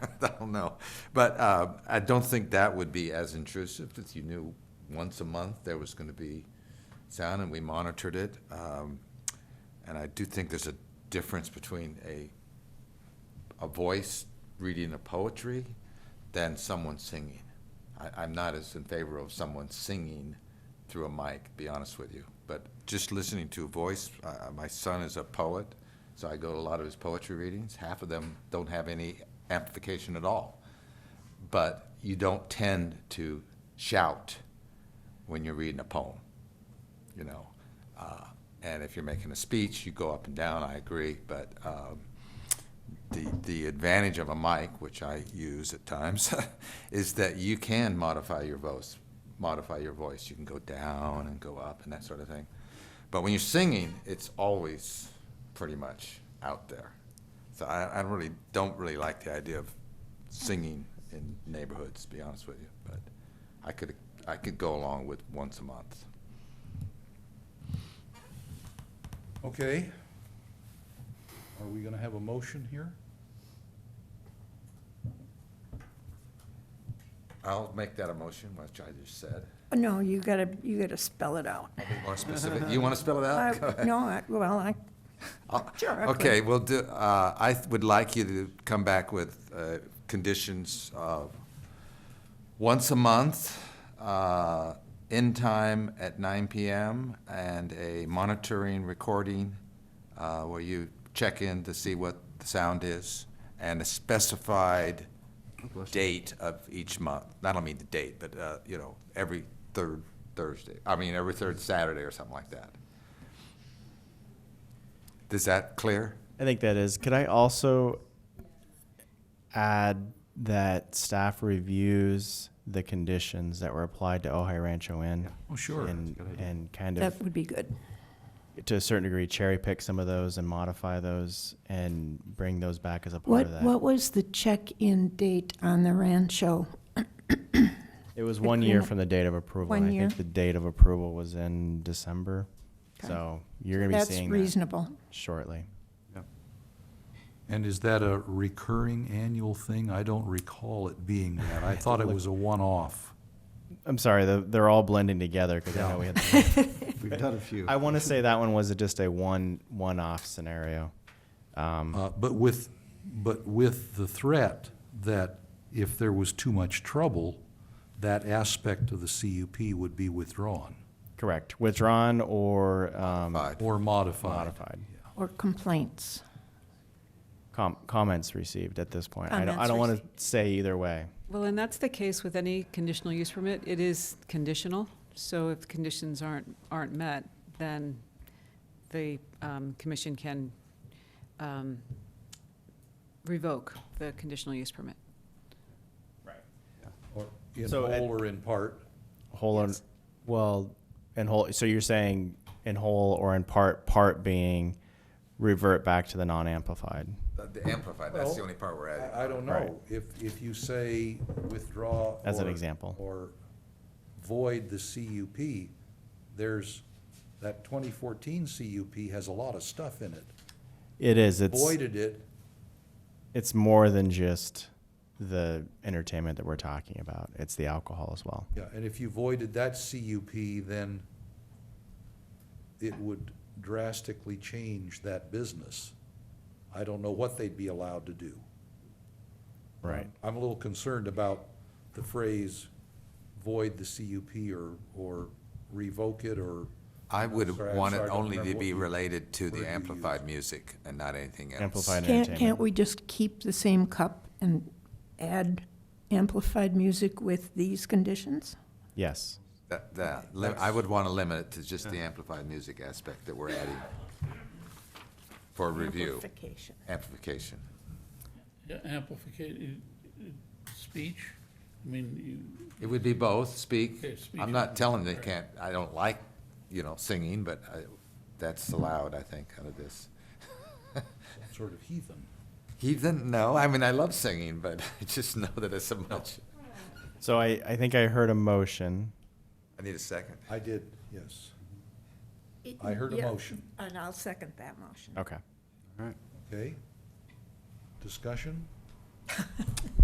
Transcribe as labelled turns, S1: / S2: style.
S1: I don't know. But uh, I don't think that would be as intrusive if you knew once a month there was going to be sound and we monitored it. Um, And I do think there's a difference between a, a voice reading a poetry than someone singing. I, I'm not as in favor of someone singing through a mic, to be honest with you. But just listening to a voice, uh, my son is a poet, so I go to a lot of his poetry readings. Half of them don't have any amplification at all. But you don't tend to shout when you're reading a poem, you know. Uh, and if you're making a speech, you go up and down, I agree. But um, the, the advantage of a mic, which I use at times, is that you can modify your voice, modify your voice. You can go down and go up and that sort of thing. But when you're singing, it's always pretty much out there. So I, I really don't really like the idea of singing in neighborhoods, to be honest with you. But I could, I could go along with once a month.
S2: Okay. Are we gonna have a motion here?
S1: I'll make that a motion, which I just said.
S3: No, you gotta, you gotta spell it out.
S1: I'll be more specific. You want to spell it out? Oh, Go
S3: I-
S1: ahead.
S3: No, I- well, I,
S1: I'll-
S3: Sure, I could.
S1: Okay, well, do, uh, I th- would like you to come back with, uh, conditions of once a month, uh, in time at nine PM, and a monitoring recording, uh, where you check in to see what the sound is, and a specified date of each month. I don't mean the date, but, uh, you know, every third Thursday, I mean, every third Saturday or something like that. Is that clear?
S4: I think that is. Could I also add that staff reviews the conditions that were applied to Ojai Rancho Inn?
S2: Oh, sure.
S4: And, and kind
S3: that
S4: of,
S3: would be good.
S4: to a certain degree, cherry pick some of those and modify those and bring those back as a part
S3: What,
S4: of that.
S3: what was the check-in date on the Rancho?
S4: It was one year
S3: agreement?
S4: from the date of approval.
S3: One
S4: and I
S3: year?
S4: think the date of approval was in December.
S3: Okay.
S4: So you're going to be
S3: That's
S4: seeing that
S3: reasonable.
S4: shortly.
S2: And is that a recurring annual thing? I don't recall it being that. I thought it was a one-off.
S4: I'm sorry, the- they're all blending together because I know we had.
S5: We've done a few.
S4: I want to say that one was just a one, one-off scenario.
S2: Uh, but with, but with the threat that if there was too much trouble, that aspect of the CUP would be withdrawn
S4: Correct. Withdrawn or um,
S1: Fine.
S2: or modified.
S4: modified.
S3: Or complaints.
S4: Com- comments received at this point. I don't, I
S3: Comments
S4: don't want
S3: received.
S4: to say either way.
S6: Well, and that's the case with any conditional use permit. It is conditional, so if the conditions aren't, aren't met, then the um, commission can um, revoke the conditional use permit.
S2: Or In
S4: So,
S2: whole
S4: and-
S2: or in part.
S4: Whole and well, in whole. So you're saying in whole or in part? Part being revert back to the non-amplified.
S1: Uh, The amplified, that's the
S2: Well,
S1: only part we're adding.
S2: I, I don't
S4: Right.
S2: know, if, if you say withdraw.
S4: As an
S2: or-
S4: example.
S2: Or void the CUP, there's, that twenty fourteen CUP has a lot of stuff in it.
S4: It is. It's
S2: Voided it,
S4: it's more than just the entertainment that we're talking about. It's the alcohol as well.
S2: yeah, and if you voided that CUP, then it would drastically change that business. I don't know what they'd be allowed to do.
S4: Right.
S2: I'm a little concerned about the phrase void the CUP or, or revoke it or.
S1: I
S2: I'm
S1: would
S2: sorry, I'm
S1: want it
S2: sorry, I don't
S1: only to
S2: remember
S1: be
S2: what you-
S1: related to
S2: word you
S1: the amplified music and not anything else.
S4: Amplified
S3: Can't,
S4: entertainment.
S3: can't we just keep the same cup and add amplified music with these conditions?
S4: Yes.
S1: That, that, li- I would want to limit it to just the amplified music aspect that we're adding for review,
S3: Amplification.
S1: amplification.
S7: Yeah, amplification, uh, speech, I mean,
S1: It would be both, speak.
S7: Okay, speech.
S1: I'm not telling they can't, I don't like, you know, singing, but I, that's allowed, I think, out of this.
S2: sort of heathen.
S1: Heathen, no, I mean, I love singing, but I just know that it's so much.
S4: So I, I think I heard a motion.
S1: I need a second.
S2: I did, yes. I heard a motion.
S3: And I'll second that motion.
S4: Okay.
S2: Okay? Discussion?